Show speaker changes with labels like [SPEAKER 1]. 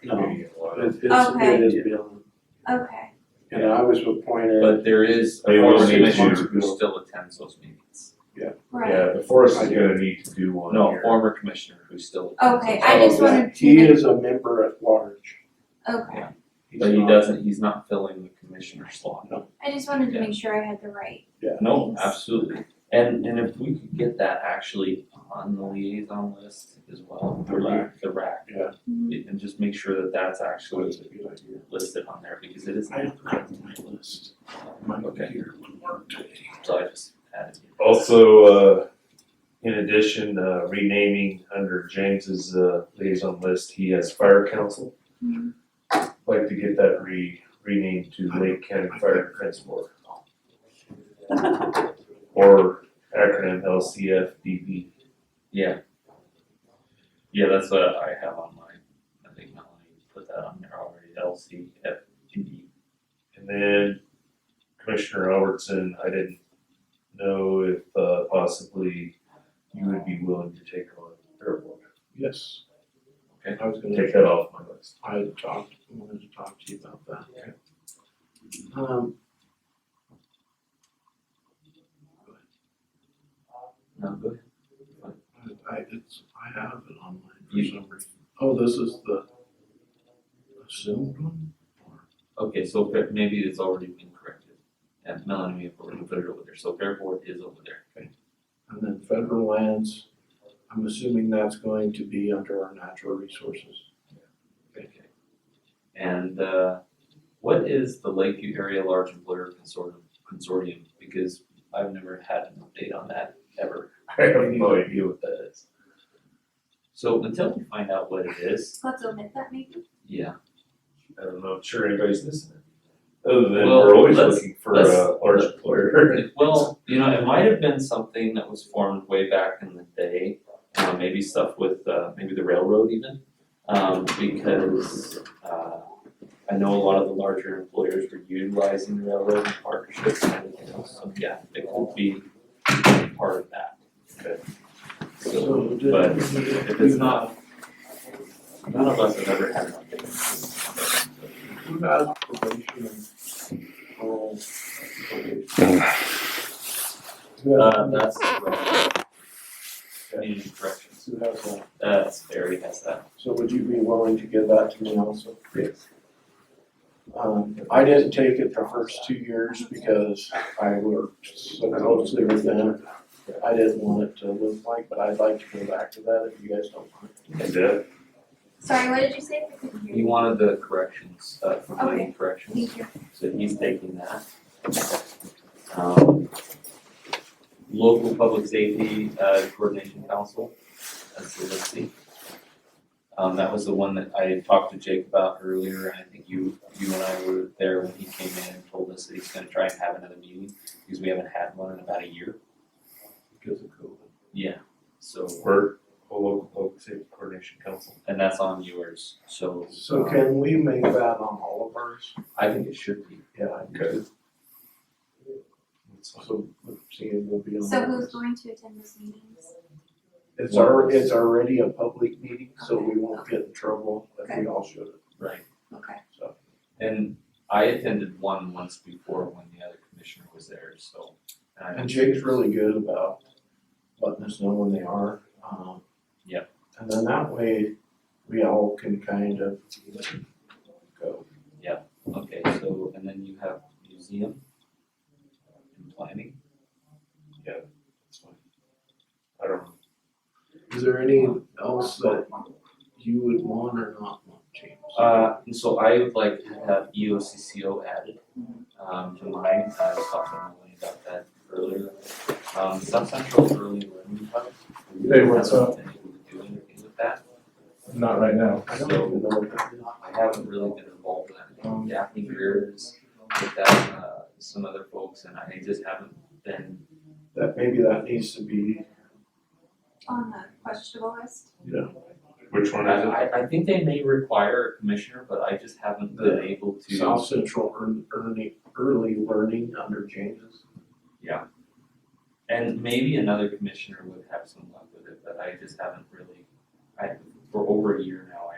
[SPEAKER 1] community a lot.
[SPEAKER 2] It's, it's,
[SPEAKER 3] Okay.
[SPEAKER 2] it is beyond,
[SPEAKER 3] Okay,
[SPEAKER 2] and I was appointed,
[SPEAKER 4] But there is a
[SPEAKER 1] They will
[SPEAKER 4] former
[SPEAKER 1] need
[SPEAKER 4] commissioner
[SPEAKER 1] to-
[SPEAKER 4] who still attends those meetings.
[SPEAKER 3] right.
[SPEAKER 1] Yeah, the forest is gonna need to do one
[SPEAKER 4] No,
[SPEAKER 1] here.
[SPEAKER 4] former commissioner who still attends.
[SPEAKER 3] Okay,
[SPEAKER 4] those
[SPEAKER 3] I just
[SPEAKER 4] meetings.
[SPEAKER 3] wanted to
[SPEAKER 2] Oh, he
[SPEAKER 3] make,
[SPEAKER 2] is a member at large.
[SPEAKER 3] okay.
[SPEAKER 2] He's
[SPEAKER 4] But he
[SPEAKER 2] not-
[SPEAKER 4] doesn't, he's not filling the commissioner slot.
[SPEAKER 3] I just wanted to
[SPEAKER 4] Yeah.
[SPEAKER 3] make sure I had the right.
[SPEAKER 4] No,
[SPEAKER 3] Thanks.
[SPEAKER 4] absolutely. And and if we could get that actually on the liaison list as well,
[SPEAKER 2] The
[SPEAKER 4] or like
[SPEAKER 2] rack.
[SPEAKER 4] the rack. Mm-hmm.
[SPEAKER 2] Yeah.
[SPEAKER 4] And and just make sure that that's
[SPEAKER 2] So
[SPEAKER 4] actually
[SPEAKER 2] it's a good idea.
[SPEAKER 4] listed on there because it is,
[SPEAKER 2] I don't have my list. My
[SPEAKER 4] Okay.
[SPEAKER 2] computer would work today.
[SPEAKER 4] so I just added. it.
[SPEAKER 1] Also, uh, in addition, uh, renaming under James's, uh, liaison list, he has fire council.
[SPEAKER 3] Hmm.
[SPEAKER 1] Like to get that re, renamed to Lake County Fire Defense Board. Or acronym LCFDB.
[SPEAKER 4] Yeah. Yeah, that's what I have on mine. I think Melanie put that on there already, L C F D.
[SPEAKER 1] And then Commissioner Albertson, I didn't know if, uh, possibly you would be willing to take on, or
[SPEAKER 2] Yes.
[SPEAKER 4] Okay.
[SPEAKER 2] I was gonna
[SPEAKER 1] take that off my list.
[SPEAKER 2] I had talked, wanted to talk to you about that. Um.
[SPEAKER 4] No, go ahead.
[SPEAKER 2] I, I- it's, I have it online for
[SPEAKER 4] You-
[SPEAKER 2] some reason. Oh, this is the assumed one?
[SPEAKER 4] Okay, so fair- maybe it's already been corrected. And Melanie may have already put it over there, so Fair Board is over there.
[SPEAKER 2] And then federal lands, I'm assuming that's going to be under our natural resources.
[SPEAKER 4] Okay. And uh what is the Lakeview Area Large Employer Consortium consortium? Because I've never had an update on that ever.
[SPEAKER 1] I have no idea what that is.
[SPEAKER 4] So until we find out what it is,
[SPEAKER 3] Let's omit that maybe.
[SPEAKER 4] yeah,
[SPEAKER 1] I don't know, I'm sure anybody's listening. Other than
[SPEAKER 4] Well,
[SPEAKER 1] we're always
[SPEAKER 4] let's-
[SPEAKER 1] looking for
[SPEAKER 4] let's-
[SPEAKER 1] a large employer.
[SPEAKER 4] Well, you know, it might have been something that was formed way back in the day, uh, maybe stuff with, uh, maybe the railroad even. Um, because, uh, I know a lot of the larger employers were utilizing the railroad in partnerships and everything else, so yeah, it could be part of that. So,
[SPEAKER 2] So did
[SPEAKER 4] but
[SPEAKER 2] we-
[SPEAKER 4] if it's not, none of us have ever had one.
[SPEAKER 2] Who has probation and parole? Who has-
[SPEAKER 4] Uh, that's, community corrections,
[SPEAKER 2] Who has that?
[SPEAKER 4] that's, Barry has that.
[SPEAKER 2] So would you be willing to give that to me also?
[SPEAKER 4] Yes.
[SPEAKER 2] Um, I didn't take it the first two years because I worked so closely with them. I didn't want it to look like, but I'd like to go back to that if you guys don't mind.
[SPEAKER 1] And uh, Deb,
[SPEAKER 3] Sorry, what did you say? I couldn't hear
[SPEAKER 4] He
[SPEAKER 3] you.
[SPEAKER 4] wanted the corrections, uh, from
[SPEAKER 3] Okay.
[SPEAKER 4] Lake Corrections.
[SPEAKER 3] Thank you.
[SPEAKER 4] So he's taking that. Um, Local Public Safety uh, Coordination Council, that's the listing. Um, that was the one that I had talked to Jake about earlier, and I think you, you and I were there when he came in and told us that he's gonna try and have another meeting, because we haven't had one in about a year.
[SPEAKER 2] Because of COVID.
[SPEAKER 4] Yeah. So,
[SPEAKER 1] we're a local public safety coordination council.
[SPEAKER 4] and that's on yours, so
[SPEAKER 2] So can we make that on all of ours?
[SPEAKER 4] I think it should be.
[SPEAKER 2] Yeah.
[SPEAKER 1] Okay. That's
[SPEAKER 2] So, see, it will be on.
[SPEAKER 3] So
[SPEAKER 2] all
[SPEAKER 3] who's
[SPEAKER 2] ours.
[SPEAKER 3] going to attend those meetings?
[SPEAKER 2] It's our, it's already a public meeting, so we won't get in trouble if we all should,
[SPEAKER 4] Right.
[SPEAKER 3] Okay,
[SPEAKER 2] so.
[SPEAKER 4] And I attended one once before when the other commissioner was there, so. I-
[SPEAKER 2] And Jake's really good about letting us know when they are, um.
[SPEAKER 4] Yep.
[SPEAKER 2] And then that way, we all can kind of go.
[SPEAKER 4] Okay, so, and then you have museum uh, and planning.
[SPEAKER 1] fine. I don't know.
[SPEAKER 2] Is there any else that you would want or not want, James?
[SPEAKER 4] Uh, and so I would like to have E EOCCO added, um, to mine, I was talking to Melanie about that earlier. Um, South Central Early Learning Hub.
[SPEAKER 5] Hey, what's
[SPEAKER 4] Hasn't been able to Do anything with that,
[SPEAKER 5] Not right now.
[SPEAKER 2] I don't even know what that is.
[SPEAKER 4] I haven't really been involved in that, I think Daphne Greer is with that, uh, some other folks, and I just haven't been
[SPEAKER 2] That, maybe that needs to be,
[SPEAKER 3] on the questionable list?
[SPEAKER 1] Which one is it?
[SPEAKER 4] I, I, I think they may require a commissioner, but I just haven't been
[SPEAKER 2] The
[SPEAKER 4] able to.
[SPEAKER 2] South Central Earn- Early, Early Learning under James's.
[SPEAKER 4] And maybe another commissioner would have some luck with it, but I just haven't really, I, for over a year now,